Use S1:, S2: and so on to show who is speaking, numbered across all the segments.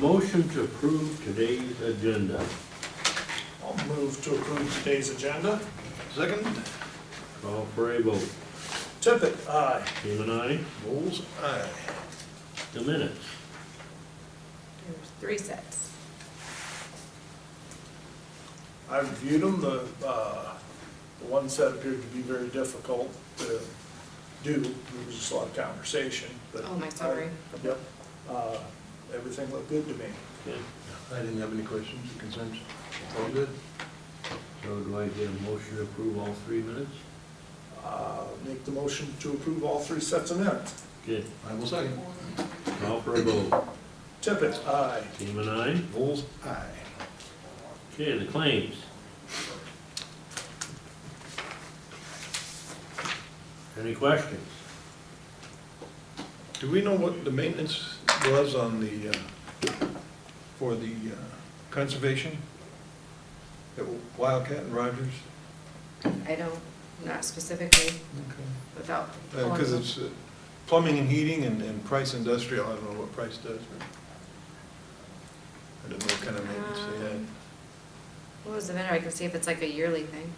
S1: motion to approve today's agenda.
S2: I'll move to approve today's agenda.
S3: Second,
S1: Call for a vote.
S2: Tippit, aye.
S1: Team and I,
S3: Bulls, aye.
S1: the minutes.
S4: There's three sets.
S2: I reviewed them, the, uh, the one set appeared to be very difficult to do, there was just a lot of conversation, but.
S4: Oh, my sorry.
S2: Yep, uh, everything looked good to me.
S1: Okay.
S3: I didn't have any questions, concerns. All good?
S1: So do I get a motion to approve all three minutes?
S2: Uh, make the motion to approve all three sets of minutes.
S1: Okay,
S3: I will second.
S1: call for a vote.
S2: Tippit, aye.
S1: Team and I,
S3: Bulls, aye.
S1: okay, the claims. Any questions?
S3: Do we know what the maintenance was on the, uh, for the uh, conservation? At Wildcat and Rogers?
S4: I don't, not specifically, without. pulling
S3: Because
S4: them.
S3: it's uh, plumbing and heating and, and Price Industrial, I don't know what Price does. but I don't know what kind of maintenance they had.
S4: Um, What was the matter? I can see if it's like a yearly thing.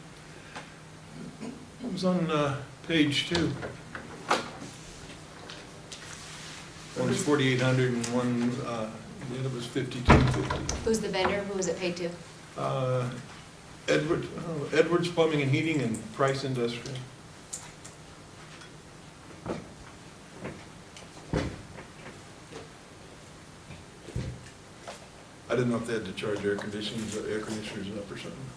S3: It was on uh, page two. One was forty-eight hundred and one, uh, the other was fifty-two fifty.
S4: Who's the vendor? Who was it paid to?
S3: Uh, Edward, oh, Edwards Plumbing and Heating and Price Industrial. I didn't know if they had to charge air conditioners, air conditioners up or something.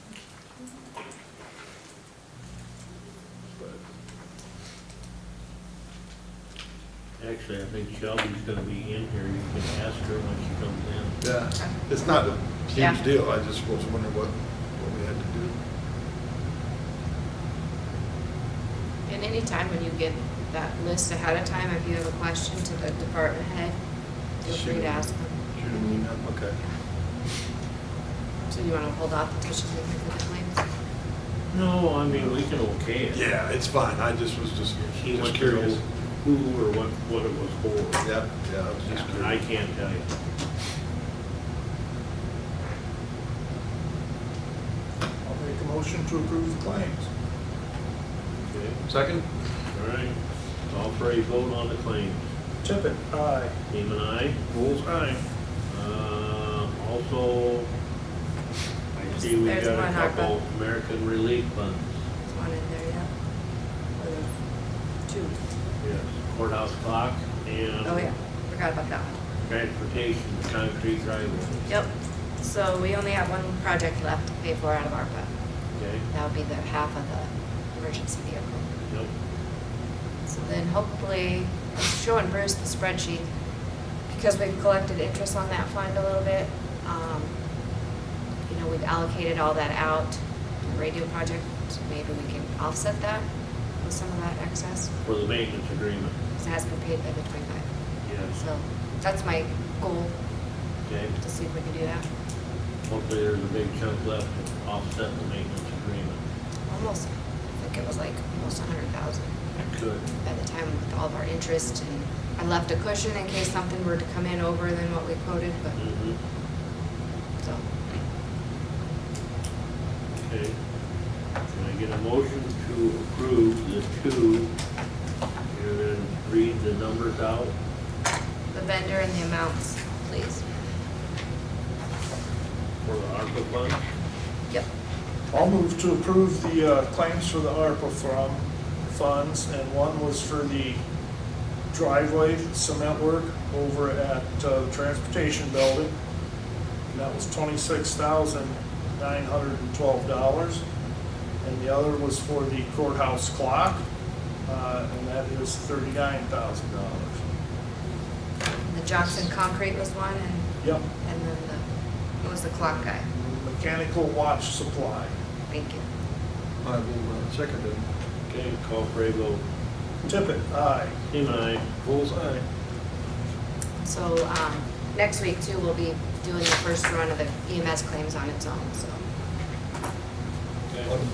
S3: But
S1: Actually, I think Shelby's gonna be in here, you can ask her when she comes in.
S3: Yeah,
S4: Uh,
S3: it's not a
S4: Yeah.
S3: huge deal, I just was wondering what, what we had to do.
S4: And anytime when you get that list ahead of time, if you have a question to the department head, feel free
S3: Shoot.
S4: to ask them.
S3: Shoot them an email, okay.
S4: So you want to hold off the petition for the claims?
S1: No, I mean, we can okay it.
S3: Yeah, it's fine, I just was just,
S1: He
S3: just
S1: went
S3: curious.
S1: through who or what, what it was for.
S3: Yeah, yeah, I was just
S1: And I
S3: curious.
S1: can't tell you.
S2: I'll make a motion to approve the claims.
S1: Okay,
S3: Second?
S1: all right. Call for a vote on the claims.
S2: Tippit, aye.
S1: Team and I,
S3: Bulls, aye.
S1: uh, also, I see we
S4: There's
S1: got a
S4: one ARPA.
S1: couple American relief funds.
S4: There's one in there, yeah. Or there's Two.
S1: Yes. Courthouse clock
S4: Oh, yeah.
S1: and
S4: Forgot about that one.
S1: transportation, concrete driveway,
S4: Yep. So we only have one project left to pay for out of ARPA.
S1: okay?
S4: That would be the half of the emergency vehicle.
S1: Yep.
S4: So then hopefully, I'm showing Bruce the spreadsheet, because we've collected interest on that fund a little bit. um, You know, we've allocated all that out, to the radio project, so maybe we can offset that with some of that excess,
S1: For the maintenance agreement,
S4: because it has been paid by the twenty-five.
S1: yes,
S4: So that's my goal,
S1: okay?
S4: to see if we can do that.
S1: Hopefully there's a big chunk left to offset the maintenance agreement.
S4: Almost, I think it was like almost a hundred thousand.
S1: Good.
S4: by the time with all of our interest, and I left a cushion in case something were to come in over than what we quoted, but,
S1: Mm-hmm,
S4: so.
S1: okay. Can I get a motion to approve the two? And then read the numbers out?
S4: The vendor and the amounts, please.
S1: For the ARPA fund?
S4: Yep.
S2: I'll move to approve the uh, claims for the ARPA from funds, and one was for the driveway cement work over at uh, the Transportation Building. And that was twenty-six thousand nine hundred and twelve dollars. And the other was for the courthouse clock, uh, and that is thirty-nine thousand dollars.
S4: And The Johnson Concrete was one, and,
S2: Yep,
S4: and then the, who was the clock guy?
S2: mechanical watch supply.
S4: Thank you.
S3: I will uh, second it.
S1: Okay, call for a vote.
S2: Tippit, aye.
S1: Team I,
S3: Bulls, aye.
S4: So, um, next week too, we'll be E doing the first run of the EMS claims on its own, so.
S3: Okay.